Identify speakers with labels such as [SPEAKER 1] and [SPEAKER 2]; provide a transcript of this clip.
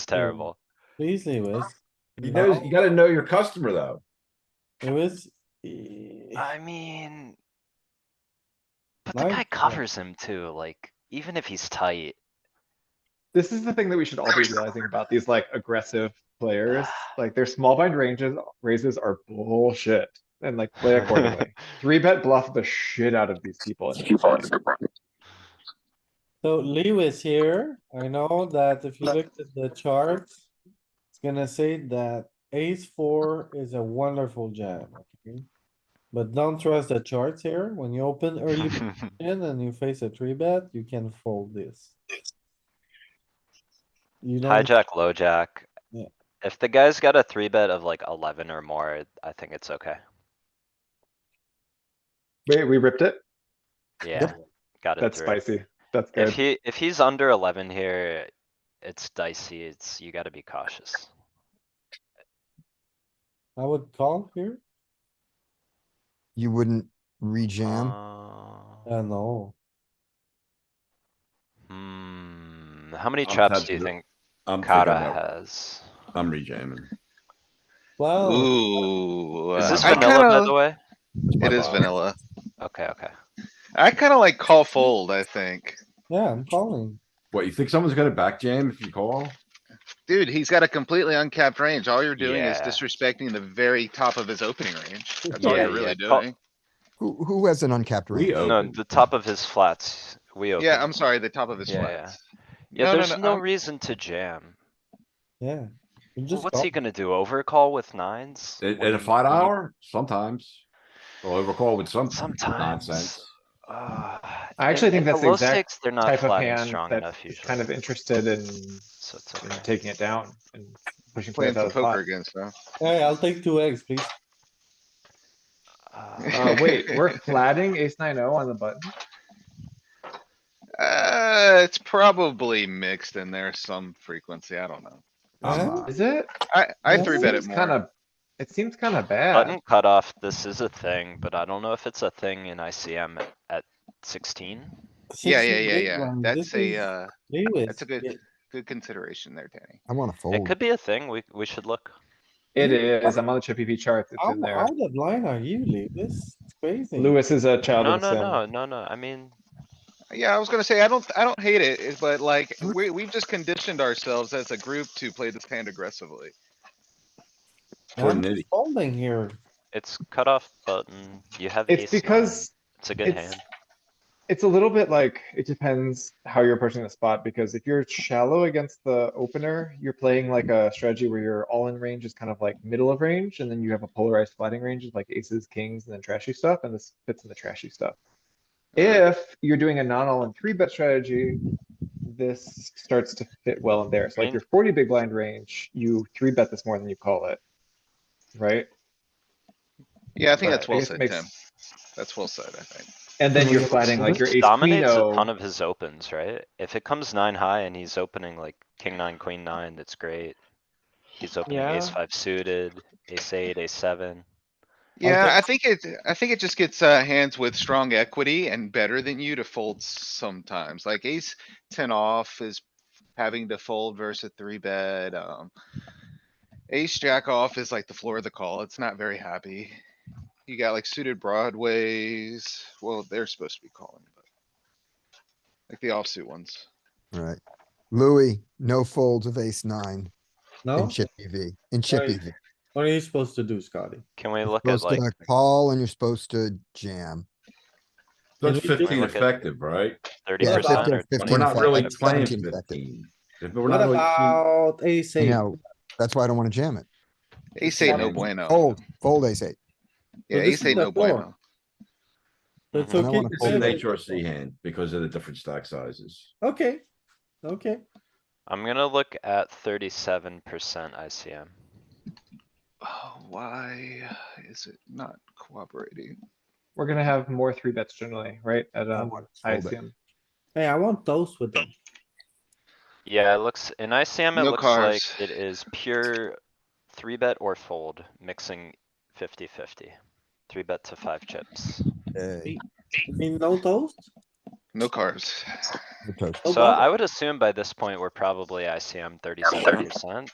[SPEAKER 1] It's terrible.
[SPEAKER 2] Please, Lewis.
[SPEAKER 3] You know, you gotta know your customer though.
[SPEAKER 2] Lewis. eh,
[SPEAKER 1] I mean. But the
[SPEAKER 2] Mine-
[SPEAKER 1] guy
[SPEAKER 2] yeah.
[SPEAKER 1] covers him too, like, even if he's tight.
[SPEAKER 4] This is the thing that we should all be realizing about these like aggressive players, like their small blind ranges raises are bullshit. And like play accordingly. Three bet bluff the shit out of these people. and it's fine.
[SPEAKER 2] So Lewis here, I know that if you looked at the charts, it's gonna say that ace four is a wonderful jam. okay? But don't trust the charts here. When you open early position and you face a three bet, you can fold this. You don't,
[SPEAKER 1] Hijack, lowjack.
[SPEAKER 2] Yeah.
[SPEAKER 1] If the guy's got a three bet of like eleven or more, I think it's okay.
[SPEAKER 4] Wait, we ripped it?
[SPEAKER 1] Yeah, got it
[SPEAKER 4] That's
[SPEAKER 1] through.
[SPEAKER 4] spicy. That's
[SPEAKER 1] If
[SPEAKER 4] good.
[SPEAKER 1] he, if he's under eleven here, it's dicey. It's, you gotta be cautious.
[SPEAKER 2] I would call here.
[SPEAKER 5] You wouldn't rejam.
[SPEAKER 1] Uh,
[SPEAKER 2] Uh, no,
[SPEAKER 1] Hmm, how many
[SPEAKER 3] I'm
[SPEAKER 1] traps
[SPEAKER 3] tapped
[SPEAKER 1] do you
[SPEAKER 3] out.
[SPEAKER 1] think
[SPEAKER 3] I'm thinking
[SPEAKER 1] Kata
[SPEAKER 3] about-
[SPEAKER 1] has?
[SPEAKER 3] I'm rejamming.
[SPEAKER 2] well,
[SPEAKER 6] Ooh.
[SPEAKER 1] Is this
[SPEAKER 6] I
[SPEAKER 1] vanilla, by
[SPEAKER 6] kinda-
[SPEAKER 1] the way?
[SPEAKER 6] It is
[SPEAKER 3] Wow.
[SPEAKER 6] vanilla.
[SPEAKER 1] Okay, okay.
[SPEAKER 6] I kinda like call fold, I think.
[SPEAKER 2] yeah, I'm calling.
[SPEAKER 3] What, you think someone's gonna back jam if you call?
[SPEAKER 6] Dude, he's got a completely uncapped range. All you're doing is
[SPEAKER 1] Yeah.
[SPEAKER 6] disrespecting the very top of his opening range. That's
[SPEAKER 2] Oh,
[SPEAKER 6] all
[SPEAKER 1] Yeah,
[SPEAKER 6] you're really
[SPEAKER 1] yeah, call-
[SPEAKER 6] doing.
[SPEAKER 5] Who, who has an uncapped
[SPEAKER 3] We
[SPEAKER 5] range?
[SPEAKER 1] No,
[SPEAKER 3] open.
[SPEAKER 1] the top of his flats, we open.
[SPEAKER 6] Yeah, I'm sorry, the top of his
[SPEAKER 1] Yeah,
[SPEAKER 6] flats.
[SPEAKER 1] Yeah,
[SPEAKER 6] No, no,
[SPEAKER 1] there's
[SPEAKER 6] no,
[SPEAKER 1] no
[SPEAKER 6] I'm-
[SPEAKER 1] reason to jam.
[SPEAKER 2] Yeah. You
[SPEAKER 1] Well,
[SPEAKER 2] just
[SPEAKER 1] What's he
[SPEAKER 2] call.
[SPEAKER 1] gonna do? Overcall with nines?
[SPEAKER 3] At,
[SPEAKER 1] When
[SPEAKER 3] at a
[SPEAKER 1] you-
[SPEAKER 3] flat
[SPEAKER 1] when you-
[SPEAKER 3] hour, sometimes. Or overcall with some
[SPEAKER 1] Sometimes.
[SPEAKER 3] nonsense.
[SPEAKER 1] Ah,
[SPEAKER 4] I actually
[SPEAKER 1] in-
[SPEAKER 4] think
[SPEAKER 1] in
[SPEAKER 4] that's the
[SPEAKER 1] low
[SPEAKER 4] exact
[SPEAKER 1] stakes, They're not
[SPEAKER 4] Type of
[SPEAKER 1] flatting
[SPEAKER 4] hand
[SPEAKER 1] strong enough
[SPEAKER 4] that's
[SPEAKER 1] usually.
[SPEAKER 4] kind of interested in,
[SPEAKER 1] So it's
[SPEAKER 4] in
[SPEAKER 1] okay.
[SPEAKER 4] taking it down and pushing
[SPEAKER 6] Playing
[SPEAKER 4] players out
[SPEAKER 6] some
[SPEAKER 4] of the pot.
[SPEAKER 6] poker against them.
[SPEAKER 2] Hey, I'll take two eggs, please.
[SPEAKER 1] Uh,
[SPEAKER 4] Uh, wait, we're flatting ace nine oh on the button.
[SPEAKER 6] Uh, it's probably mixed in there some frequency. I don't know.
[SPEAKER 2] Huh?
[SPEAKER 4] Is it?
[SPEAKER 6] I, I
[SPEAKER 2] Yeah,
[SPEAKER 6] three bet it
[SPEAKER 4] Seems Kinda,
[SPEAKER 6] more.
[SPEAKER 4] it seems kinda bad.
[SPEAKER 1] Button cutoff, this is a thing, but I don't know if it's a thing in ICM at- at sixteen.
[SPEAKER 2] 16
[SPEAKER 6] Yeah, yeah, yeah,
[SPEAKER 2] big
[SPEAKER 6] yeah.
[SPEAKER 2] ones.
[SPEAKER 6] That's
[SPEAKER 2] This
[SPEAKER 6] a,
[SPEAKER 2] is-
[SPEAKER 6] uh,
[SPEAKER 2] Lewis.
[SPEAKER 6] that's a good-
[SPEAKER 2] yeah,
[SPEAKER 6] good consideration there, Danny.
[SPEAKER 5] I wanna
[SPEAKER 1] It
[SPEAKER 5] fold.
[SPEAKER 1] could be a thing, we, we should look.
[SPEAKER 4] It is. I'm on the Chippy V chart. It's
[SPEAKER 2] How
[SPEAKER 4] in there.
[SPEAKER 2] out of line are you, Lewis? It's crazy.
[SPEAKER 4] Lewis is a child
[SPEAKER 1] No,
[SPEAKER 4] of
[SPEAKER 1] no,
[SPEAKER 4] sin.
[SPEAKER 1] no, no, no, I mean,
[SPEAKER 6] Yeah, I was gonna say, I don't, I don't hate it, it- but like,
[SPEAKER 4] Mm-hmm.
[SPEAKER 6] we, we've just conditioned ourselves as a group to play this hand aggressively.
[SPEAKER 3] Poor
[SPEAKER 2] I'm
[SPEAKER 3] nitty.
[SPEAKER 2] folding here.
[SPEAKER 1] it's cutoff button, you have ace
[SPEAKER 4] It's
[SPEAKER 1] nine.
[SPEAKER 4] because
[SPEAKER 1] It's a good
[SPEAKER 4] it's,
[SPEAKER 1] hand.
[SPEAKER 4] it's a little bit like, it depends how you're approaching the spot, because if you're shallow against the opener, you're playing like a strategy where your all-in range is kind of like middle of range, and then you have a polarized flatting range of like aces, kings, and then trashy stuff, and this fits in the trashy stuff. If you're doing a non-all-in three-bet strategy, this starts to fit well in there. So like
[SPEAKER 1] Mm.
[SPEAKER 4] your forty big blind range, you three-bet this more than you call it. Right?
[SPEAKER 6] Yeah, I think
[SPEAKER 4] But
[SPEAKER 6] that's well
[SPEAKER 4] guess it
[SPEAKER 6] said,
[SPEAKER 4] makes-
[SPEAKER 6] Tim. That's well said, I think.
[SPEAKER 4] And then
[SPEAKER 2] Mhm.
[SPEAKER 4] you're flatting like your
[SPEAKER 1] Lewis
[SPEAKER 4] ace, queen,
[SPEAKER 1] Dominates a
[SPEAKER 4] oh.
[SPEAKER 1] ton of his opens, right? If it comes nine high and he's opening like king nine, queen nine, that's great. He's opening ace
[SPEAKER 4] Yeah.
[SPEAKER 1] five suited, ace eight, ace seven.
[SPEAKER 6] Yeah, I think it, I think it just gets, uh, hands with strong equity and better than you to fold sometimes, like ace ten off is having to fold versus a three bet, um. Ace jack off is like the floor of the call, it's not very happy. You got like suited broadways, well, they're supposed to be calling, but. Like the offsuit ones.
[SPEAKER 5] Alright. Louis, no folds of ace nine
[SPEAKER 2] No?
[SPEAKER 5] in Chippy V, in Chippy
[SPEAKER 2] Right.
[SPEAKER 5] V.
[SPEAKER 2] What are you supposed to do, Scotty?
[SPEAKER 1] Can we look at
[SPEAKER 5] Supposed
[SPEAKER 1] like,
[SPEAKER 5] to call and you're supposed to jam.
[SPEAKER 3] That's
[SPEAKER 2] Can we do-
[SPEAKER 3] fifteen
[SPEAKER 1] Look at-
[SPEAKER 3] effective, right?
[SPEAKER 1] thirty
[SPEAKER 5] Yeah,
[SPEAKER 1] percent
[SPEAKER 5] fifteen-
[SPEAKER 1] or
[SPEAKER 3] But
[SPEAKER 5] 15
[SPEAKER 3] We're not really
[SPEAKER 5] effective,
[SPEAKER 3] playing
[SPEAKER 5] 17 effective.
[SPEAKER 3] fifteen. If we're
[SPEAKER 2] What
[SPEAKER 3] not really-
[SPEAKER 2] about ace
[SPEAKER 5] You
[SPEAKER 2] eight?
[SPEAKER 5] know, that's why I don't wanna jam it.
[SPEAKER 6] Ace eight, no
[SPEAKER 3] Seven.
[SPEAKER 6] bueno.
[SPEAKER 5] Fold, fold ace eight.
[SPEAKER 6] Yeah,
[SPEAKER 2] Oh, this
[SPEAKER 6] ace
[SPEAKER 2] is
[SPEAKER 6] eight,
[SPEAKER 2] the
[SPEAKER 6] no
[SPEAKER 2] floor.
[SPEAKER 6] bueno.
[SPEAKER 2] It's
[SPEAKER 1] Mhm.
[SPEAKER 5] I don't
[SPEAKER 2] okay
[SPEAKER 5] wanna
[SPEAKER 2] to
[SPEAKER 3] It's
[SPEAKER 5] fold
[SPEAKER 2] say
[SPEAKER 3] an
[SPEAKER 5] it.
[SPEAKER 2] that-
[SPEAKER 3] HRC hand because of the different stack sizes.
[SPEAKER 2] Okay, okay.
[SPEAKER 1] I'm gonna look at thirty-seven percent ICM.
[SPEAKER 6] Oh, why is it not cooperating?
[SPEAKER 4] We're gonna have more three bets generally, right? At
[SPEAKER 6] Uh,
[SPEAKER 5] I
[SPEAKER 4] um,
[SPEAKER 5] wanna fold it.
[SPEAKER 4] ICM.
[SPEAKER 2] Hey, I want toast with them.
[SPEAKER 1] Yeah, it looks, in ICM, it
[SPEAKER 6] No
[SPEAKER 1] looks like
[SPEAKER 6] carbs.
[SPEAKER 1] it is pure three bet or fold, mixing 50-50. Three bet to five chips.
[SPEAKER 5] Hey,
[SPEAKER 2] You mean no toast?
[SPEAKER 6] No carbs.
[SPEAKER 5] Okay.
[SPEAKER 4] Oh,
[SPEAKER 1] So I would assume by this point, we're probably ICM thirty-seven percent.